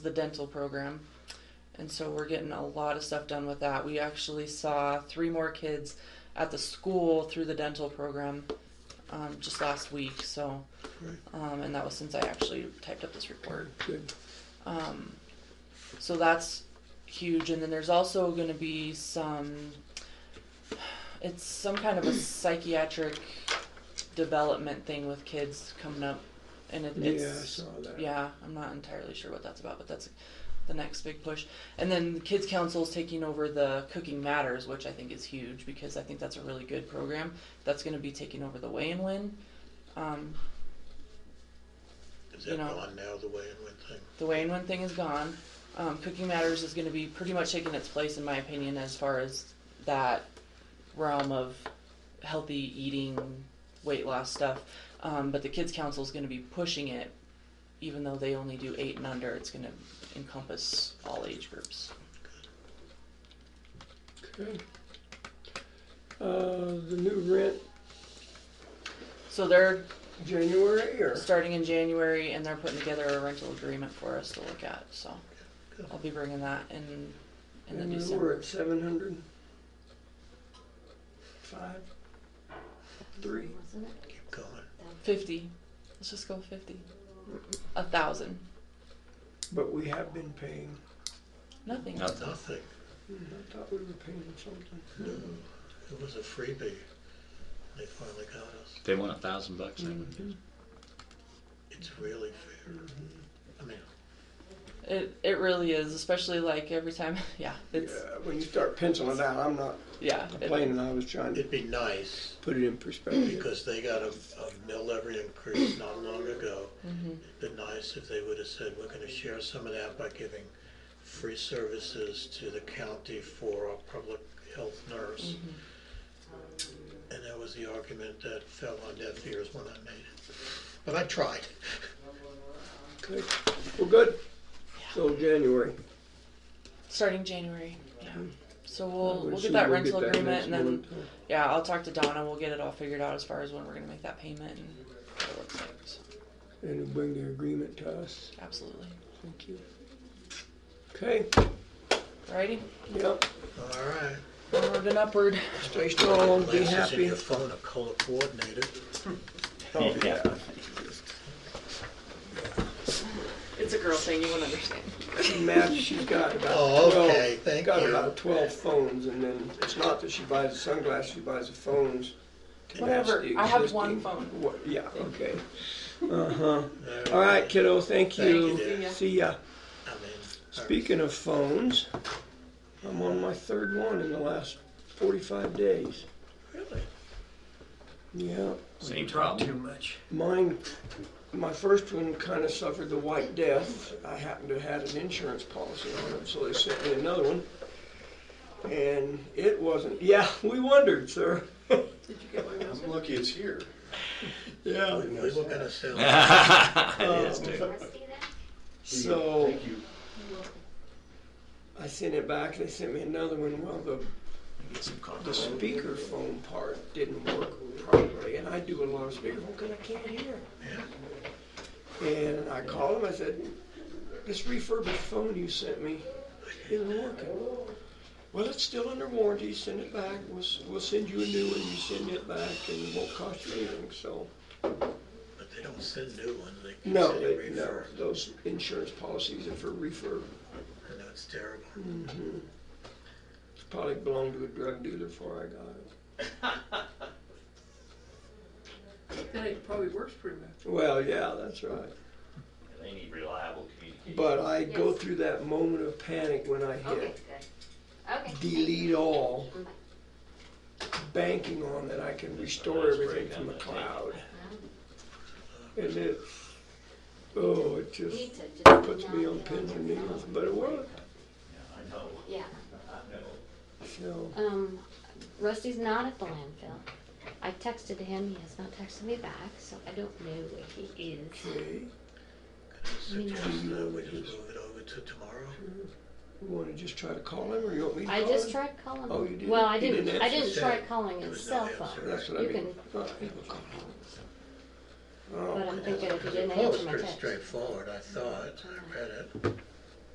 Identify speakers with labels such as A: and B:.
A: the dental program. And so we're getting a lot of stuff done with that. We actually saw three more kids at the school through the dental program um, just last week. So,
B: Great.
A: um, and that was since I actually typed up this report.
B: Good.
A: Um, so that's huge. And then there's also going to be some, it's some kind of a psychiatric development thing with kids coming up. And it,
B: Yeah, I
A: it's,
B: saw that.
A: yeah, I'm not entirely sure what that's about, but that's the next big push. And then the Kids Council is taking over the Cooking Matters, which I think is huge because I think that's a really good program. That's going to be taking over the Way and Win. Um,
C: Is
A: You
C: that
A: know.
C: gone now, the way and when thing?
A: the Way and Win thing is gone. Um, Cooking Matters is going to be pretty much taking its place, in my opinion, as far as that realm of healthy eating, weight loss stuff. Um, but the Kids Council is going to be pushing it, even though they only do eight and under. It's going to encompass all age groups.
B: Okay. Uh, the new rent,
A: So they're
B: January or?
A: starting in January and they're putting together a rental agreement for us to look at. So
C: Good.
A: I'll be bringing that in in the
B: And we
A: Oh, December.
B: We're at seven hundred. Five. Three.
D: Wasn't it?
C: Keep going.
A: Fifty. Let's just go fifty. A thousand.
B: But we have been paying,
A: Nothing.
E: Nothing.
C: Nothing.
B: Hmm, I thought we were paying something.
C: It was a freebie. They finally got us.
E: They want a thousand bucks. I would
B: Mm-hmm.
E: guess.
C: It's really fair. I mean,
A: It it really is, especially like every time yeah, it's
B: Yeah, when you start penciling it out, I'm not
A: yeah. it-
B: complaining, I was trying to
C: it'd be nice
B: put it in perspective.
C: because they got a, a mill levy increase not long ago. It'd be nice if they would have said, we're gonna share some of that by giving free services to the county for a public health nurse. Mm-hmm. And that was the argument that fell on deaf ears when I made it. But I tried.
B: Okay. Well, good. So January.
A: starting January. Yeah. So Mm-hmm. we'll we'll
B: Assume
A: get that rental
B: next
A: agreement and then
B: month.
A: yeah, I'll talk to Donna, we'll get it all figured out as far as when we're gonna make that payment and what it looks like. So,
B: And it'll bring the agreement to us.
A: absolutely.
B: Thank you. Okay,
A: Alrighty?
B: yep,
C: All right.
A: Onward and upward.
B: stay strong, be
C: Glasses in
B: happy.
C: your phone are color coordinated.
B: Oh, yeah.
A: It's a girl thing, you wouldn't understand.
B: Matt, she's got about
C: Oh,
B: twelve.
C: okay, thank
B: Got
C: you.
B: about twelve phones, and then it's not that she buys the sunglasses, she buys the phones. and that's
A: Whatever,
B: the
A: I have one
B: existing-
A: phone.
B: what- Yeah, okay. Uh-huh. All right, kiddo, thank
C: Thank
B: you.
C: you, dear.
B: See ya.
C: Uh, I mean, uh, all right.
B: Speaking of phones, I'm on my third one in the last forty-five days.
C: really,
B: Yeah.
E: Same
B: Too
E: problem.
B: much. Mine, my first one kind of suffered the white death. I happened to have had an insurance policy on it, so they sent me another one. And it wasn't, yeah, we wondered, sir.
F: I'm lucky it's here.
B: Yeah.
C: we were gonna sell.
E: it is, dude.
B: So
F: Thank you.
B: I sent it back, they sent me another one. Well, the,
E: Get some
B: the
E: condoms.
B: speakerphone part didn't work properly, and I do a lot of speakerphone because I can't hear. And I called them, I said, this refurbished phone you sent me isn't working. Well, it's still under warranty, send it back, we'll, s- we'll send you a new one, you send it back, and it won't cost you anything, so.
C: But they don't send new ones, they can
B: No,
C: send
B: they, no,
C: refurb.
B: those insurance policies are for refurb.
C: And that's terrible.
D: Hmm.
B: Probably belonged to a drug dealer before I got it.
G: Then it probably works pretty much.
B: Well, yeah, that's right.
H: They need reliable communication.
B: But I go
D: Yes.
B: through that moment of panic when I
D: Okay,
B: hit
D: good. Okay.
B: delete all, banking on that I can restore
H: Let's break
B: everything
H: down
B: from the
H: that
B: cloud. And it, oh, it just
D: Need to just
B: puts me on pins and needles, but it worked.
H: I know,
D: Yeah.
H: I know.
B: So,
D: Um, Rusty's not at the landfill. I texted him. He has not texted me back, so I don't know where he is.
B: okay,
C: Suggest that we just move it over to tomorrow?
B: you wanna just try to call him or you want me to call
D: I
B: him?
D: just tried calling.
B: Oh,
D: him.
B: you did?
D: Well, I
B: You
D: didn't.
B: didn't
D: I
B: answer
D: didn't
C: the
D: try
C: cell.
D: calling his
C: was no
D: cell phone.
C: answer.
B: That's what I
D: You
B: mean.
D: can-
B: Oh, yeah, we'll call him. Oh,
D: But I'm thinking if he
C: Because the
D: didn't
C: poll was
D: answer my
C: pretty
D: text.
C: straightforward, I thought, I read it.